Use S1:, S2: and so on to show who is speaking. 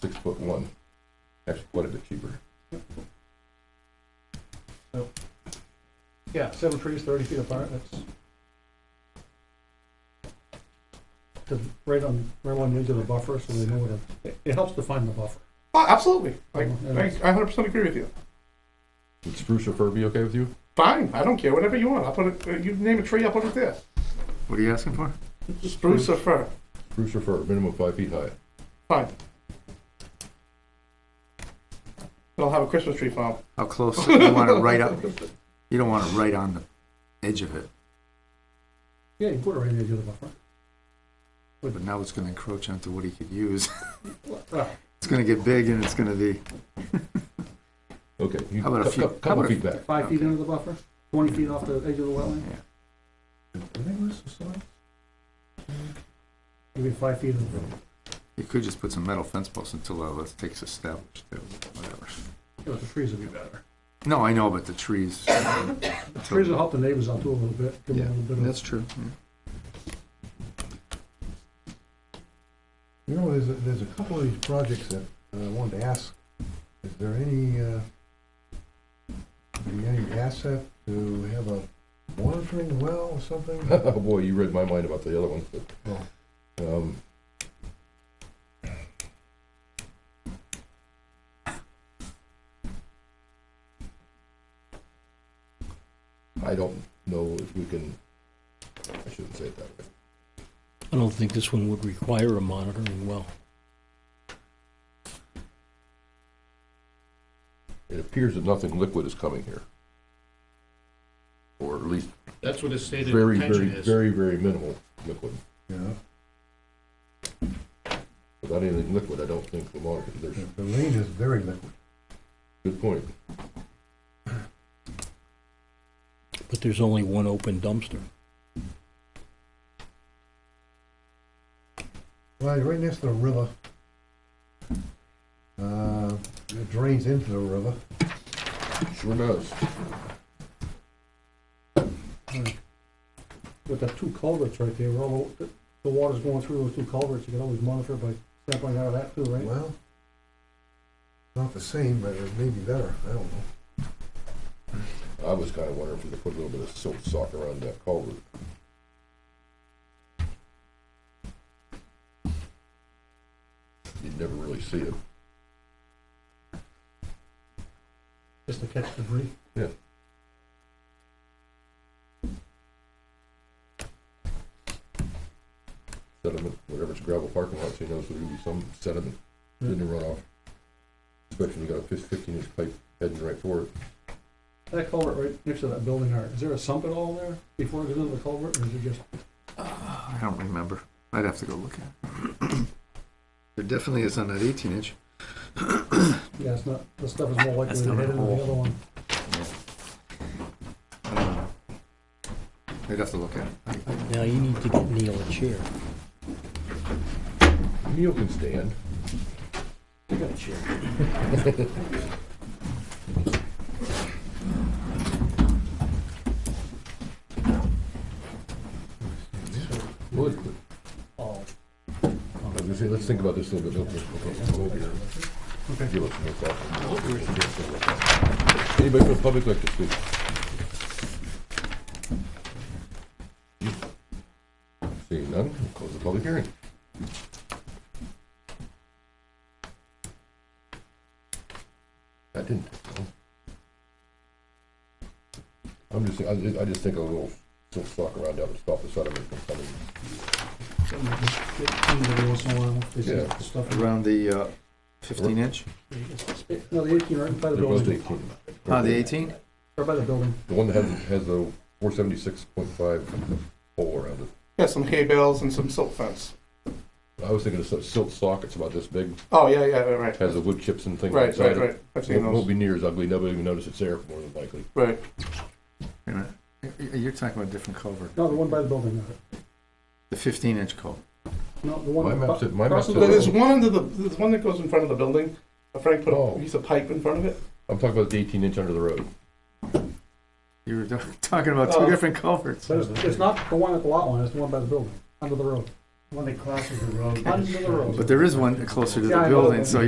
S1: six foot one. Actually, quite a bit cheaper.
S2: Yeah, seven trees, thirty feet apart, that's. To, right on, right on the edge of the buffer, so they know what, it- it, it helps define the buffer.
S3: Oh, absolutely. Like,
S2: Mhm.
S3: I, I 100% agree with you.
S1: Would spruce or fir be okay with you?
S3: Fine. I don't care. Whatever you want. I'll put it, uh, you name a tree, I'll put it there.
S4: What are you asking for?
S3: Spruce or fir.
S1: Spruce or fir, minimum five feet high.
S3: Fine. And I'll have a Christmas tree farm.
S4: How close? You want it right up, you don't want it right on the edge of it,
S2: Yeah, you put it right on the edge of the buffer.
S4: but now it's gonna encroach onto what he could use.
S2: Ah,
S4: It's gonna get big and it's gonna be,
S1: Okay. you-
S4: How about a
S1: cou-
S4: few-
S1: cou-
S4: how
S1: Couple
S4: about a-
S1: feet back.
S2: Five feet into the buffer, twenty feet off the edge of the wetland,
S1: Did I lose the slide?
S2: maybe five feet in the
S4: you could just put some metal fence posts until all that takes established, too, whatever.
S2: Yeah, but the trees would be better.
S4: No, I know, but the trees.
S2: The trees will help the neighbors out too a little bit, give
S4: Yeah,
S2: them a little bit of,
S4: that's true. yeah.
S5: You know, there's, a- there's a couple of these projects that uh, I wanted to ask, is there any, uh, be any asset to have a monitoring well or something? Oh.
S1: Oh, boy, you read my mind about the other one. Um, I don't know if we can, I shouldn't say it that way.
S6: I don't think this one would require a monitoring well.
S1: It appears that nothing liquid is coming here. Or at least
S7: That's what his stated
S1: very, very,
S7: intention is.
S1: very, very minimal liquid.
S5: You know,
S1: Without anything liquid, I don't think the monitor, there's,
S5: the lane is very liquid.
S1: good point.
S6: But there's only one open dumpster.
S5: Well, right next to the river. Uh, it drains into the river.
S1: Sure does.
S2: with the two culverts right there, where all the, the water's going through those two culverts, you can always monitor by sampling out of that too, right?
S5: Well, not the same, but it may be better, I don't know.
S1: I was kinda wondering if we could put a little bit of silt sock around that culvert. You'd never really see it.
S2: Just to catch debris.
S1: Sediment, whatever's gravel parking lots, you know, so there'll be some sediment in the runoff. Especially when you got a fif- fifteen inch pipe heading right for it.
S2: That culvert right next to that building there, is there a sump at all there before it goes into the culvert, or is it just?
S4: I don't remember. I'd have to go look at it. There definitely is on that eighteen inch.
S2: Yeah, it's not, the stuff is more likely
S4: That's
S2: to
S4: not
S2: head into
S4: all.
S2: the other one.
S4: I don't know. I'd have to look at it.
S6: Now, you need to get Neil a chair.
S1: Neil can stand.
S6: I got a chair.
S1: Wood.
S2: Oh,
S1: I was gonna say, let's think about this a little bit. Okay, okay, we'll be here. Give us a little thought. Anybody from the public like to speak? Seeing none, we'll close the public hearing. That didn't take long. I'm just, I just- I just think a little, little sock around that would stop the sediment from coming.
S2: something like this, get cleaned every once in a while, they see
S1: Yeah.
S2: the stuff.
S4: Around the uh, fifteen inch?
S2: No, the eighteen right by the
S1: There was
S2: building,
S1: the-
S4: Ah, the eighteen?
S2: right by the building.
S1: The one that has, has the four seventy-six point five hole around it.
S3: Yeah, some hay bales and some silk fence.
S1: I was thinking of some silt sockets about this big,
S3: Oh, yeah, yeah, right, right.
S1: has the wood chips and things
S3: Right,
S1: inside it.
S3: right, right. I've seen
S1: Won't won't
S3: those.
S1: be near as ugly, nobody even notice it's there, more than likely.
S3: Right.
S4: Wait a minute. Y- y- You're talking about a different culvert.
S2: No, the one by the building, no.
S4: The fifteen inch culvert.
S2: no, the
S1: My
S2: one.
S1: map said, my map
S2: Russell,
S1: said,
S3: But There's
S1: I'm
S3: one under the, there's one that goes in front of the building. Frank put
S1: Oh.
S3: a piece of pipe in front of it.
S1: talking about the eighteen inch under the road.
S4: You were talking about two
S3: Oh.
S4: different culverts.
S2: But it's, it's not the one at the lot line, it's the one by the building, under the road.
S5: When they cross the road.
S2: Under the road.
S4: But there is one closer
S2: Yeah,
S4: to the
S2: I know.
S4: building, so